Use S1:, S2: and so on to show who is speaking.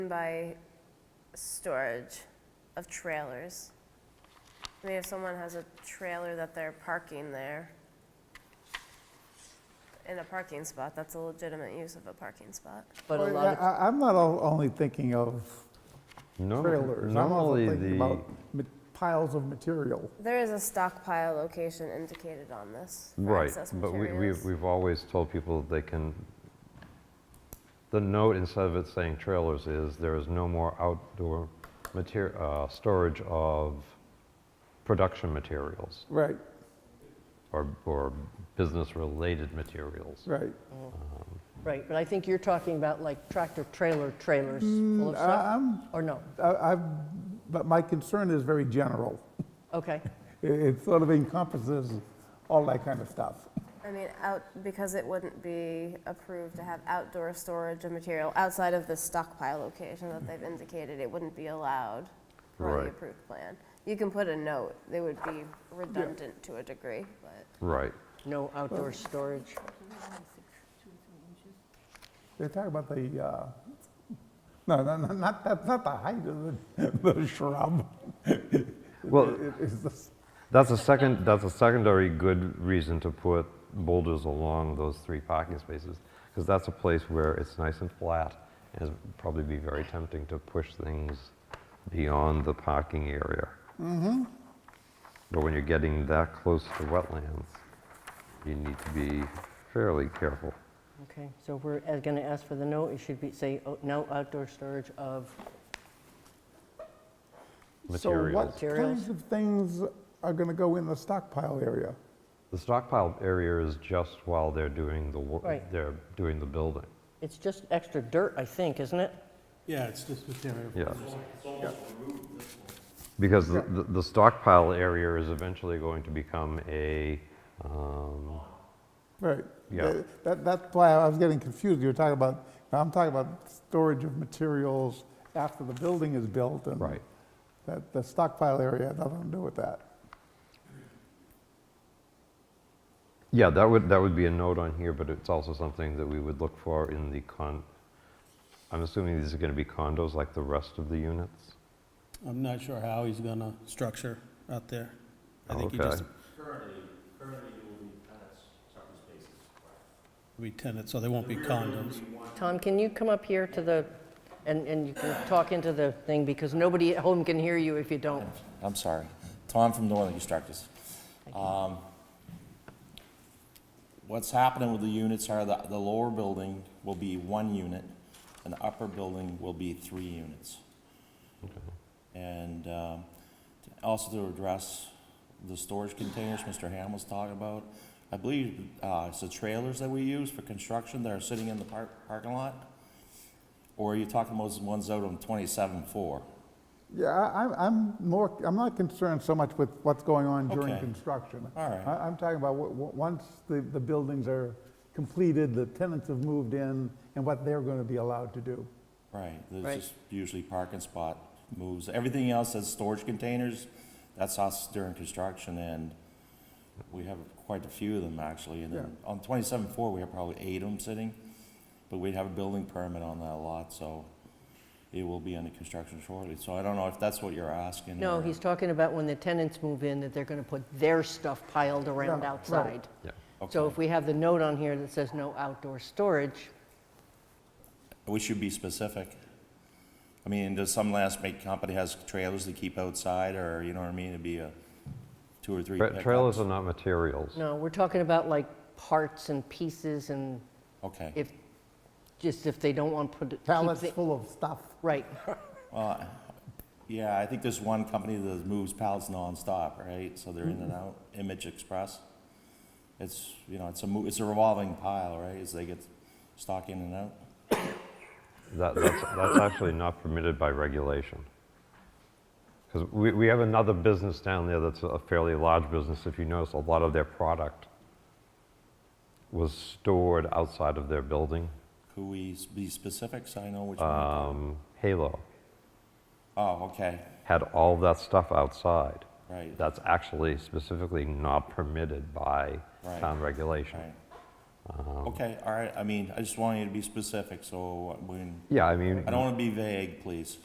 S1: by storage of trailers. I mean, if someone has a trailer that they're parking there in a parking spot, that's a legitimate use of a parking spot.
S2: But a
S3: Well,
S2: lot of,
S3: I- I'm not o- only thinking of
S4: No,
S3: trailers. I'm also
S4: Normally,
S3: thinking
S4: the,
S3: about ma- piles of material.
S1: There is a stockpile location indicated on this. for
S4: right,
S1: excess
S4: but we,
S1: materials.
S4: we've, we've always told people they can, the note instead of it saying trailers is there is no more outdoor mater, uh, storage of production materials
S3: Right,
S4: or, or business-related materials.
S3: right.
S2: right, but I think you're talking about like tractor-trailer trailers
S3: Mm,
S2: full of stuff,
S3: I'm,
S2: or no?
S3: I- I've, but my concern is very general.
S2: Okay,
S3: It- It sort of encompasses all that kind of stuff.
S1: I mean, out, because it wouldn't be approved to have outdoor storage of material outside of the stockpile location that they've indicated, it wouldn't be allowed per
S4: Right.
S1: the approved plan. You can put a note, they would be redundant to a degree, but.
S4: Right.
S2: no outdoor storage.
S3: They're talking about the, uh, no, no, no, not, that's not the height of the the shrub.
S4: Well,
S3: It- It's the
S4: That's a second, that's a secondary good reason to put boulders along those three parking spaces, because that's a place where it's nice and flat, and it'd probably be very tempting to push things beyond the parking area. But when you're getting that close to wetlands, you need to be fairly careful.
S2: Okay, so if we're going to ask for the no, it should be, say, oh, no outdoor storage of,
S3: So
S4: Materials.
S3: what kinds
S2: Materials.
S3: of things are going to go in the stockpile area?
S4: The stockpile area is just while they're doing the, wo-
S2: Right.
S4: they're doing the building.
S2: it's just extra dirt, I think, isn't it?
S5: Yeah, it's just material.
S4: Yeah. Because the, the- the stockpile area is eventually going to become a, um,
S3: Right.
S4: Yeah.
S3: Th- That, that's why I was getting confused. You were talking about, I'm talking about storage of materials after the building is built and.
S4: Right.
S3: That, the stockpile area had nothing to do with that.
S4: yeah, that would, that would be a note on here, but it's also something that we would look for in the con, I'm assuming these are gonna be condos like the rest of the units?
S5: I'm not sure how he's gonna structure out there. I think he just.
S4: Okay.
S5: Currently, currently it will be tenants, so they won't be condos.
S2: Tom, can you come up here to the, and, and you can talk into the thing, because nobody at home can hear you if you don't.
S6: I'm sorry. Tom from Northern Constructors. Um, What's happening with the units are the, the lower building will be one unit, and the upper building will be three units. And um, to- also to address the storage containers Mr. Ham was talking about, I believe uh, it's the trailers that we use for construction that are sitting in the park, parking lot? Or are you talking about the ones out on twenty-seven-four?
S3: Yeah, I, I'm- I'm more, I'm not concerned so much with what's going on during
S6: Okay.
S3: construction.
S6: All right.
S3: I, I'm talking about wh- wh- once the, the buildings are completed, the tenants have moved in and what they're going to be allowed to do.
S6: Right,
S2: Right.
S6: there's just usually parking spot moves. Everything else that's storage containers, that's us during construction and we have quite a few of them actually. And then on twenty-seven four, we have probably eight of them sitting, but we have a building permit on that lot, so it will be under construction shortly. So I don't know if that's what you're asking.
S2: No,
S6: or-
S2: he's talking about when the tenants move in, that they're going to put their stuff piled around
S3: Yeah, right.
S2: outside.
S4: Yeah.
S2: So
S6: Okay.
S2: if we have the note on here that says no outdoor storage,
S6: We should be specific. I mean, does some last make company has trailers to keep outside or, you know what I mean? It'd be a two or three
S4: Tra- Trailers are
S6: pickups.
S4: not materials.
S2: no, we're talking about like parts and pieces and
S6: Okay.
S2: if, just if they don't want to put. it- keep
S3: Pallets
S2: the-
S3: full of stuff.
S2: Right,
S6: Well, yeah, I think there's one company that moves pallets nonstop, right? So they're in and out, Image Express. It's, you know, it's a, mo- it's a revolving pile, right, as they get stock in and out?
S4: That, that's, that's actually not permitted by regulation. Because we, we have another business down there that's a fairly large business. If you notice, a lot of their product was stored outside of their building.
S6: Could we s- be specific so I know which one?
S4: Um, Halo
S6: Oh, okay,
S4: had all that stuff outside.
S6: right,
S4: That's actually specifically not permitted by
S6: Right.
S4: town regulation.
S6: right. Okay, all right, I mean, I just want you to be specific, so when,
S4: Yeah, I mean.
S6: I don't want to be vague, please.